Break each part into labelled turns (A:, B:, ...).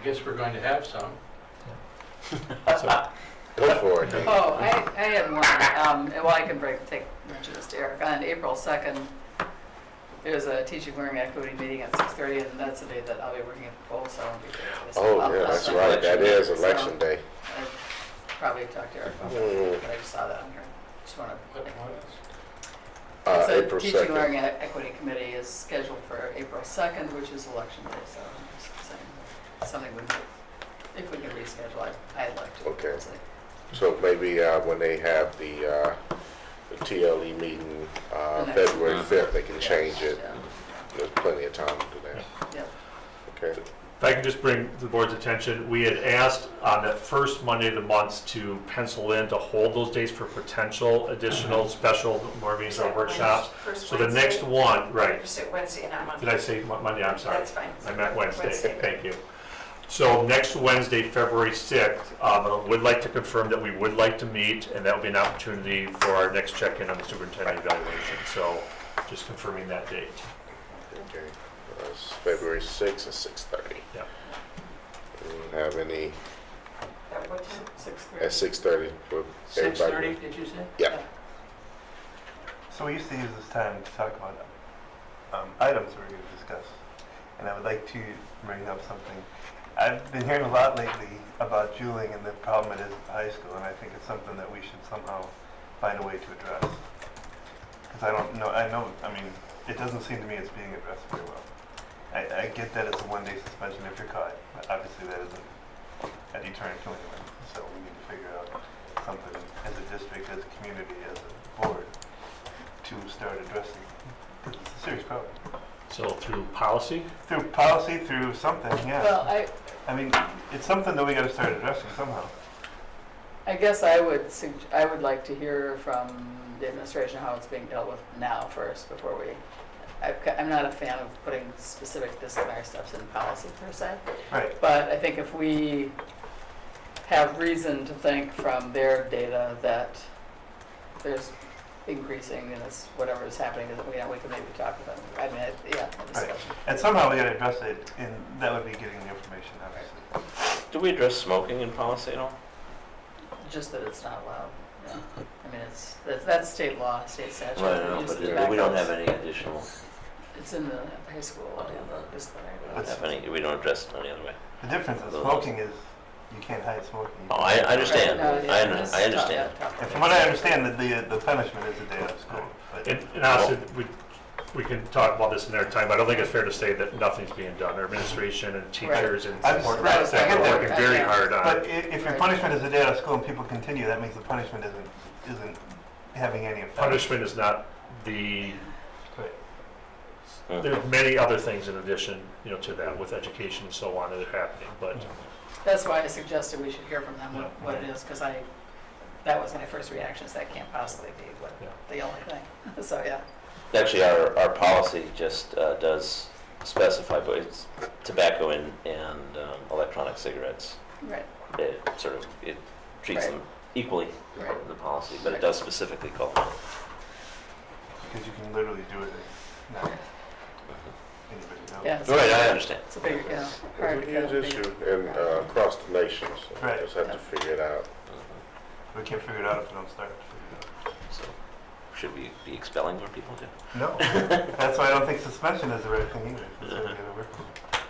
A: I guess we're going to have some.
B: Go for it, Nick.
C: Oh, I, I had one, um, and well, I can break, take, mention this to Eric. On April second, there's a teaching learning equity meeting at six thirty, and that's the day that I'll be working at the poll, so. I'll be there.
B: Oh, yeah, that's right, that is
C: So,
B: election day.
C: I Probably talked to Eric about
B: Mm.
C: it, but I just saw that on here. Just wanna.
A: What was?
B: Uh,
C: It's a
B: April
C: Teaching
B: second.
C: learning e- equity committee is scheduled for April second, which is election day, so I'm just saying, something we, could- if we can reschedule, I'd, I'd like to.
B: Okay.
C: So,
B: So maybe, uh, when they have the, uh, the TLE meeting, uh,
C: The next
B: February
D: one.
B: fifth, they can
C: yeah,
B: change it.
C: yeah,
B: There's plenty of time to do that,
C: Yep.
B: okay?
E: If I can just bring to the board's attention, we had asked on that first Monday of the month to pencil in to hold those days for potential additional special board meetings or workshops. So the next one, right,
F: Just at Wednesday, not Monday.
E: did I say Mon- Monday? I'm sorry.
F: That's fine.
E: I meant Wednesday,
F: Wednesday.
E: thank you. So next Wednesday, February 6th, um, I would like to confirm that we would like to meet, and that will be an opportunity for our next check-in on the superintendent evaluation. So just confirming that date.
B: Okay, Uh, it's February sixth at six thirty.
E: Yeah.
B: Have any,
F: At what time?
C: Six thirty.
B: at six thirty,
A: Six thirty, did you say?
G: So we used to use this time to talk about um, items we were going to discuss, and I would like to bring up something. I've been hearing a lot lately about juuling and the problem it is at high school, and I think it's something that we should somehow find a way to address. Because I don't know, I know, I mean, it doesn't seem to me it's being addressed very well. I, I get that it's a one-day suspension if you're caught, but obviously that isn't a deterrent to anyone. So we need to figure out something as a district, as a community, as a board, to start addressing. It's a serious problem.
E: So through policy?
G: Through policy, through something,
C: Well, I,
G: yeah. I mean, it's something that we gotta start addressing somehow.
C: I guess I would, sug- I would like to hear from the administration how it's being dealt with now first, before we, I've ca- I'm not a fan of putting specific disciplinary steps in policy per se,
G: Right,
C: but I think if we have reason to think from their data that there's increasing in this, whatever is happening, that we, we can maybe talk about, it. I mean, I- yeah, a discussion.
G: and somehow we gotta address it, and that would be getting the information, obviously.
D: Do we address smoking in policy at all?
C: just that it's not allowed. yeah. I mean, it's, that's, that's state law, state statute.
D: Right, no,
C: Use
D: but
C: of
D: we don't
C: tobaccos.
D: have any additional,
C: It's in the high school, yeah, this one.
D: we don't have any, we don't address it any other way.
G: The difference is smoking is, you can't hide smoking.
D: Oh, I, I understand,
C: Right, no,
D: I,
C: it
D: under-
C: is
D: I
C: tough, yeah,
D: understand.
C: tough.
G: And from what I understand, that the, the punishment is a day out of school, but.
E: And, and honestly, we, we can talk about this another time, but I don't think it's fair to say that nothing's being done. Our administration and teachers and
G: I'm-
E: support
G: right,
E: staff are
G: I get that.
E: working very hard on
G: But
E: it.
G: i- if your
C: Right.
G: punishment is a day out of school and people continue, that means the punishment isn't, isn't having any effect.
E: Punishment is not the,
G: Right.
E: there are many other things in addition, you know, to that with education and so on that are happening, but
C: That's why I suggested we should hear from them what,
E: Yeah.
C: what it is, because I, that was my first reaction, is that can't possibly be what,
E: Yeah.
C: the only thing. So, yeah,
D: Actually, our, our policy just uh, does specify, but it's tobacco and, and um, electronic cigarettes.
C: right,
D: It sort of, it treats
C: Right.
D: them equally
C: right.
D: in the policy, but it does specifically call them.
G: Because you can literally do it, and not anybody knows.
C: Yeah, it's-
D: Right, I understand.
C: It's a big, yeah.
B: It's
C: hard
B: a
C: to
B: huge
C: get a big-
B: issue and, uh, across the nation, so we
G: Right.
B: just have to figure it out.
G: We can't figure it out if we don't start to
D: So, should we be expelling more people too?
G: figure it out. No, that's why I don't think suspension is the right thing either. That's what we gotta work on.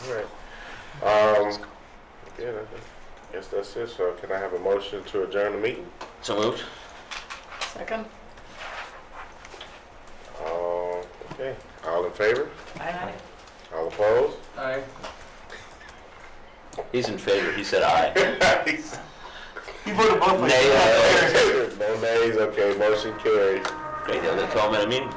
G: So,
B: All right. Um, yeah, that- I guess that's it. So can I have a motion to adjourn the meeting?
D: So moved?
C: Second?
B: Uh, okay, all in favor?
C: Aye.
B: All opposed?
A: Aye.
D: He's in favor, he said aye.
G: You voted both ways.
D: Nay, uh,
B: No nays, okay, motion carries.
D: Great, they'll call him at a meeting.